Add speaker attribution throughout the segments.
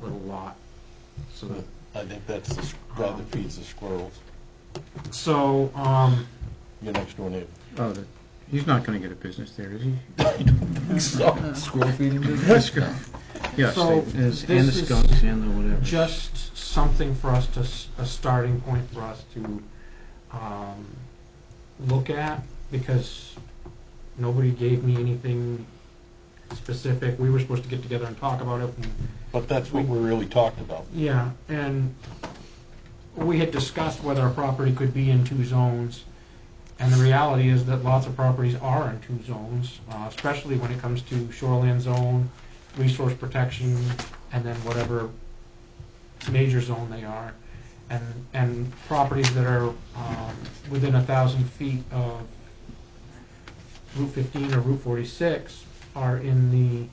Speaker 1: lot. So that,
Speaker 2: I think that's, the s- guy that feeds the squirrels,
Speaker 1: so, um,
Speaker 2: your next door neighbor.
Speaker 3: Oh, the- he's not going to get a business there, is he?
Speaker 2: Squirrel feeding
Speaker 3: Let's go. Yes,
Speaker 1: So,
Speaker 3: they- there's- and the
Speaker 1: this is
Speaker 3: skunks and the whatever.
Speaker 1: just something for us to, s- a starting point for us to, um, look at, because nobody gave me anything specific. We were supposed to get together and talk about it, and
Speaker 2: But that's what we really talked about.
Speaker 1: Yeah, and we had discussed whether a property could be in two zones, and the reality is that lots of properties are in two zones, uh, especially when it comes to shoreland zone, resource protection, and then whatever major zone they are. And, and properties that are um, within a thousand feet of Route 15 or Route 46 are in the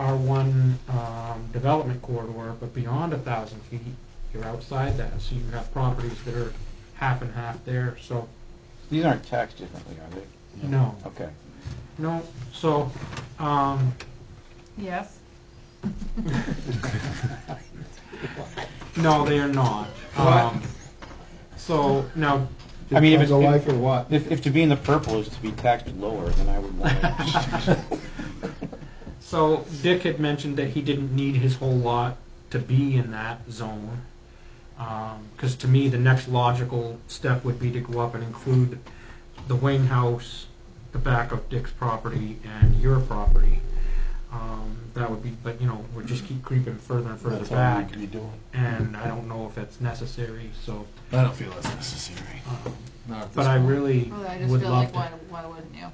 Speaker 1: R1 um, development corridor, but beyond a thousand feet, you're outside that, so you have properties that are half and half there, so,
Speaker 4: These aren't taxed differently, are they?
Speaker 1: no,
Speaker 4: Okay.
Speaker 1: no, so, um,
Speaker 5: Yes.
Speaker 1: no, they are not. Um, So, now,
Speaker 4: I mean, if it's,
Speaker 6: life
Speaker 4: if-
Speaker 6: or what?
Speaker 4: if, if to be in the purple is to be taxed lower, then I would want it.
Speaker 1: so Dick had mentioned that he didn't need his whole lot to be in that zone. Because to me, the next logical step would be to go up and include the Wayne house, the back of Dick's property, and your property. Um, that would be, but you know, we just keep creeping further and further
Speaker 2: That's all we
Speaker 1: back,
Speaker 2: could be doing.
Speaker 1: and I don't know if that's necessary. So,
Speaker 6: I don't feel that's necessary.
Speaker 1: um,
Speaker 6: Not at
Speaker 1: but
Speaker 6: this
Speaker 1: I
Speaker 6: point.
Speaker 1: really
Speaker 5: Well, I just
Speaker 1: would
Speaker 5: feel
Speaker 1: love
Speaker 5: like
Speaker 1: to.
Speaker 5: why, why wouldn't you?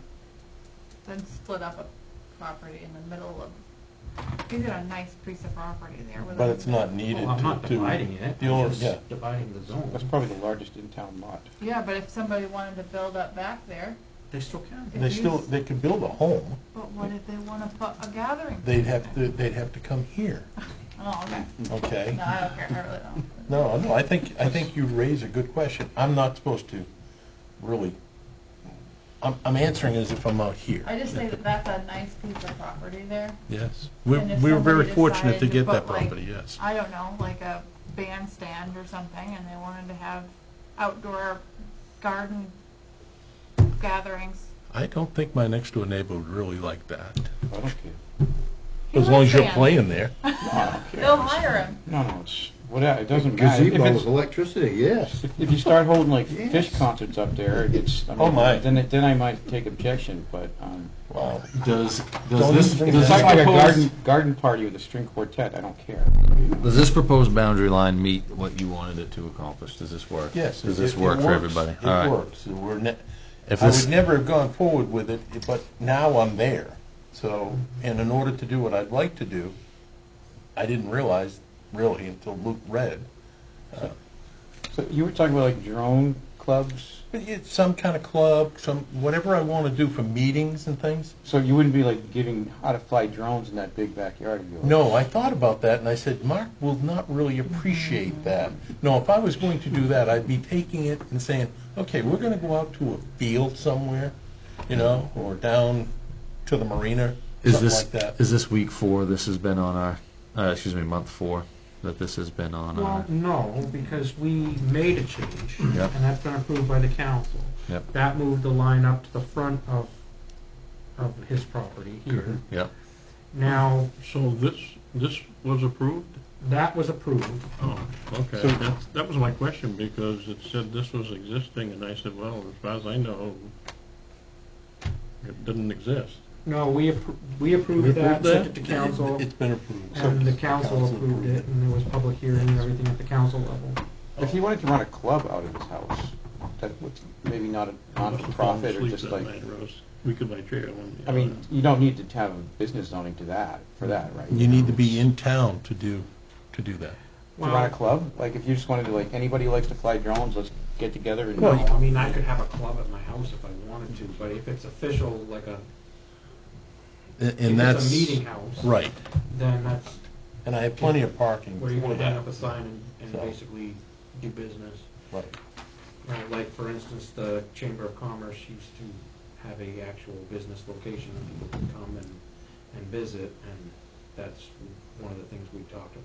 Speaker 5: Then split up a property in the middle of, you got a nice piece of property there with a.
Speaker 2: But it's not needed
Speaker 1: Well, I'm
Speaker 2: to,
Speaker 1: not
Speaker 2: to,
Speaker 1: dividing it.
Speaker 2: the owner-
Speaker 1: I'm just
Speaker 2: yeah.
Speaker 1: dividing the zone.
Speaker 4: That's probably the largest in-town lot.
Speaker 5: Yeah, but if somebody wanted to build up back there,
Speaker 1: They still can.
Speaker 2: they still, they could build a home,
Speaker 5: but what if they want to put a gathering?
Speaker 2: they'd
Speaker 5: place
Speaker 2: have
Speaker 5: in?
Speaker 2: to, they'd have to come here,
Speaker 5: Oh, okay.
Speaker 2: okay?
Speaker 5: No, I don't care, I really don't.
Speaker 2: Mm-hmm. No, no, I think, I think you raise a good question. I'm not supposed to really, I'm, I'm answering as if I'm out here.
Speaker 5: I just say that that's a nice piece of property there.
Speaker 6: Yes, we,
Speaker 5: And if
Speaker 6: we were very
Speaker 5: somebody
Speaker 6: fortunate to
Speaker 5: decided to
Speaker 6: get that
Speaker 5: put, like,
Speaker 6: property, yes.
Speaker 5: I don't know, like a bandstand or something, and they wanted to have outdoor garden gatherings.
Speaker 6: I don't think my next door neighbor would really like that,
Speaker 4: I don't care.
Speaker 5: He
Speaker 6: as long as you're
Speaker 5: likes bands.
Speaker 6: playing there.
Speaker 4: No, I don't care.
Speaker 5: They'll hire him.
Speaker 4: No, no, it's, whatever, it doesn't matter. If
Speaker 6: Gazebo's
Speaker 4: it's,
Speaker 6: electricity, yes.
Speaker 4: if you start holding like fish
Speaker 6: Yes.
Speaker 4: concerts up there, it's, I
Speaker 2: Oh, my.
Speaker 4: mean, then, it- then I might take objection, but, um,
Speaker 2: Wow.
Speaker 7: Does,
Speaker 2: Don't
Speaker 7: does
Speaker 2: even
Speaker 7: this,
Speaker 2: bring
Speaker 4: it's
Speaker 7: does
Speaker 2: that
Speaker 4: like
Speaker 7: this
Speaker 2: up.
Speaker 4: like a
Speaker 7: proposed,
Speaker 4: garden, garden party with a string quartet, I don't care.
Speaker 7: does this proposed boundary line meet what you wanted it to accomplish? Does this work?
Speaker 2: Yes.
Speaker 7: Does
Speaker 2: it-
Speaker 7: this
Speaker 2: it
Speaker 7: work for
Speaker 2: works.
Speaker 7: everybody? All
Speaker 2: It
Speaker 7: right.
Speaker 2: works. We're ne-
Speaker 7: If
Speaker 2: I would
Speaker 7: this,
Speaker 2: never have gone forward with it, but now I'm there. So, and in order to do what I'd like to do, I didn't realize really until Luke read.
Speaker 4: So you were talking about like drone clubs,
Speaker 2: But it's some kind of club, some, whatever I want to do for meetings and things.
Speaker 4: so you wouldn't be like giving how to fly drones in that big backyard of yours?
Speaker 2: No, I thought about that and I said, Mark will not really appreciate that. No, if I was going to do that, I'd be taking it and saying, okay, we're going to go out to a field somewhere, you know, or down to the marina,
Speaker 7: is
Speaker 2: something
Speaker 7: this,
Speaker 2: like that.
Speaker 7: is this week four, this has been on our, uh, excuse me, month four, that this has been on
Speaker 1: Well,
Speaker 7: our,
Speaker 1: no, because we made a change, and
Speaker 7: Yep.
Speaker 1: that's been approved by the council.
Speaker 7: Yep.
Speaker 1: That moved the line up to the front of, of his property here.
Speaker 7: yep.
Speaker 1: Now,
Speaker 8: So this, this was approved?
Speaker 1: that was approved,
Speaker 8: Oh, okay.
Speaker 4: So-
Speaker 8: That's, that was my question, because it said this was existing, and I said, well, as far as I know, it didn't exist.
Speaker 1: no, we, appro- we approved that,
Speaker 8: approved that?
Speaker 1: sent it to council,
Speaker 2: It's been approved.
Speaker 1: and the council approved it, and there was public hearing and everything at the council level.
Speaker 4: If he wanted to run a club out of his house, that was maybe not a non-profit or
Speaker 8: Sleep
Speaker 4: just
Speaker 8: that
Speaker 4: like,
Speaker 8: night, or I was- We could buy chair one.
Speaker 4: I mean, you don't need to have a business zoning to that, for that, right?
Speaker 2: You need to be in town to do, to do that.
Speaker 4: To run a club, like if you just wanted to, like, anybody likes to fly drones, let's get together and.
Speaker 1: No, I mean, I could have a club at my house if I wanted to, but if it's official, like a,
Speaker 2: And-
Speaker 1: if
Speaker 2: And
Speaker 1: it's
Speaker 2: that's.
Speaker 1: a meeting house,
Speaker 2: Right.
Speaker 1: then that's
Speaker 2: And I have plenty of parking
Speaker 1: where you're
Speaker 2: for
Speaker 1: gonna hang up a
Speaker 2: that.
Speaker 1: sign and, and
Speaker 2: So.
Speaker 1: basically do business.
Speaker 2: Right.
Speaker 1: Uh, Like, for instance, the Chamber of Commerce used to have a actual business location, and people could come and, and visit, and that's one of the things we talked about.